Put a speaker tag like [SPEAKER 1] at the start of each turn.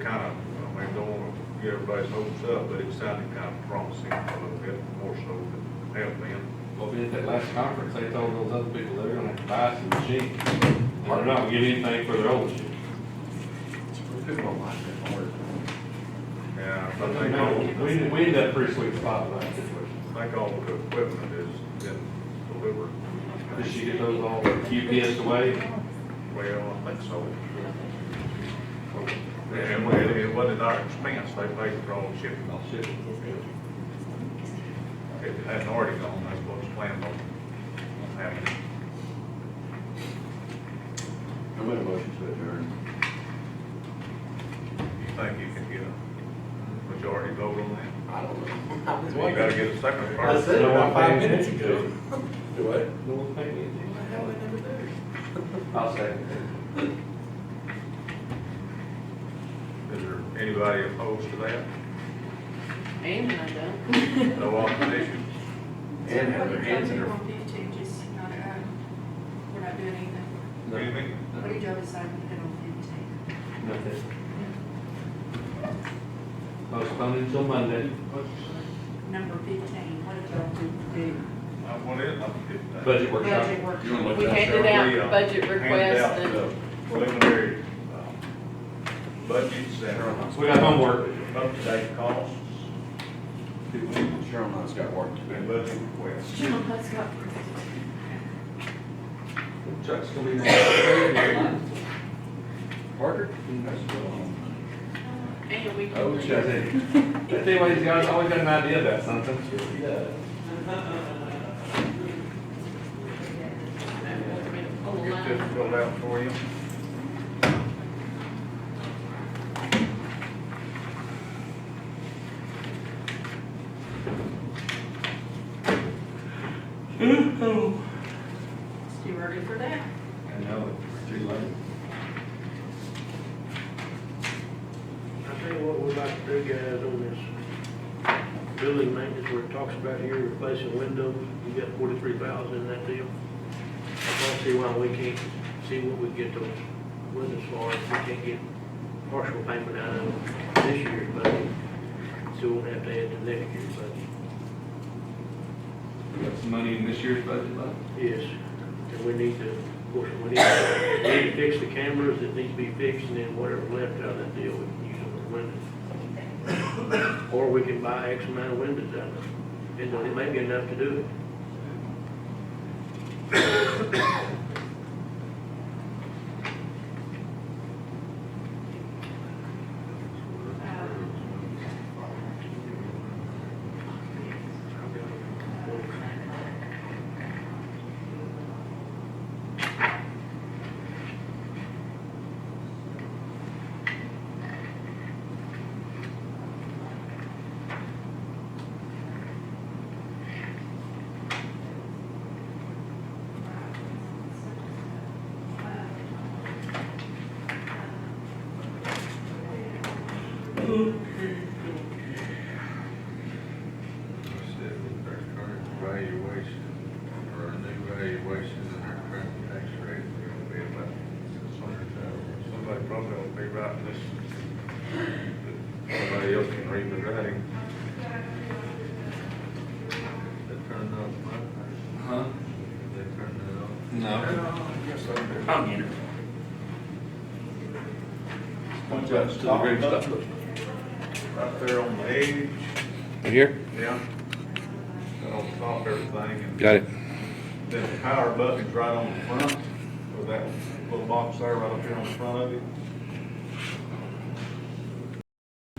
[SPEAKER 1] kind of, I mean, don't want to get everybody's hopes up, but it sounded kind of promising a little bit more so than it had been.
[SPEAKER 2] Well, at that last conference, they told those other people they're gonna have to buy some machines. They're not gonna get anything for their old shit.
[SPEAKER 1] Yeah, but they know.
[SPEAKER 2] We, we ended up pretty sweet spot in that situation.
[SPEAKER 1] I think all the equipment has been delivered.
[SPEAKER 2] Did she get those all UPS away?
[SPEAKER 1] Well, I think so. And we- it wasn't our expense, they paid for all the shipping.
[SPEAKER 2] I'll ship it.
[SPEAKER 1] If it hadn't already gone, that's what's planned on happening.
[SPEAKER 3] I made a motion to adjourn.
[SPEAKER 1] You think you can get a majority vote on that?
[SPEAKER 3] I don't know.
[SPEAKER 1] You gotta get a second
[SPEAKER 3] I
[SPEAKER 1] first.
[SPEAKER 3] said it
[SPEAKER 2] No one
[SPEAKER 3] about five
[SPEAKER 2] paid
[SPEAKER 3] minutes
[SPEAKER 2] attention.
[SPEAKER 3] ago. Do what?
[SPEAKER 2] No one paid anything. I'll say.
[SPEAKER 1] Is there anybody opposed to that?
[SPEAKER 4] And I don't.
[SPEAKER 1] No opposition?
[SPEAKER 3] And have their hands in
[SPEAKER 5] What
[SPEAKER 3] her.
[SPEAKER 5] do you do to just not, uh, we're not doing anything?
[SPEAKER 1] Anything?
[SPEAKER 5] What do you do aside from the penalty?
[SPEAKER 2] Nothing. Postpone until Monday,
[SPEAKER 5] Number fifteen, what did y'all do?
[SPEAKER 1] I want it, Uh, I'm good.
[SPEAKER 2] budget workshop.
[SPEAKER 5] Budget work.
[SPEAKER 3] You wanna look
[SPEAKER 4] We
[SPEAKER 3] at that,
[SPEAKER 4] handed
[SPEAKER 3] Cheryl?
[SPEAKER 1] We, uh,
[SPEAKER 4] out budget
[SPEAKER 1] handed out
[SPEAKER 4] requests and,
[SPEAKER 1] the Preliminary, uh, budgets that are
[SPEAKER 2] So we got homework.
[SPEAKER 1] up to date costs
[SPEAKER 3] Cheryl and I's got work to
[SPEAKER 1] and
[SPEAKER 3] do.
[SPEAKER 1] budget requests.
[SPEAKER 4] Jim, that's not-
[SPEAKER 2] Chuck's gonna be. there.
[SPEAKER 3] Parker? That's good.
[SPEAKER 4] and we
[SPEAKER 3] Oh,
[SPEAKER 4] can.
[SPEAKER 3] Chuck.
[SPEAKER 2] That's the way he's got, always got an idea about something.
[SPEAKER 4] Pull a
[SPEAKER 1] Get this
[SPEAKER 4] line.
[SPEAKER 1] filled out for you.
[SPEAKER 5] It's too early for that.
[SPEAKER 3] I know, it's too late.
[SPEAKER 6] I think what we'd like to do, guys, on this building maintenance, where it talks about here replacing windows, you got forty-three thousand in that deal. I don't see why we can't see what we get those windows for, if we can't get partial payment out of this year's budget. So we'll have to add to next year's budget.
[SPEAKER 2] We got some money in this year's budget left.
[SPEAKER 6] Yes, and we need to, of course, we need to, we need to fix the cameras that need to be fixed, and then whatever left out of that deal, we can use on the windows. Or we can buy X amount of windows out of it, and it may be enough to do it.
[SPEAKER 1] Valuation, or a new valuation and our current tax rate is gonna be about six hundred thousand. Somebody probably will be writing this. Somebody else can read the writing. That turned off my,
[SPEAKER 2] Huh?
[SPEAKER 1] they turned it off.
[SPEAKER 2] No.
[SPEAKER 3] I'm in it.
[SPEAKER 1] Punch up to the green stuff. Right there on the edge,
[SPEAKER 7] Right here?
[SPEAKER 1] yeah. That'll stop everything and
[SPEAKER 7] Got it.
[SPEAKER 1] Then the power button's right on the front, or that little box there right up here on the front of it.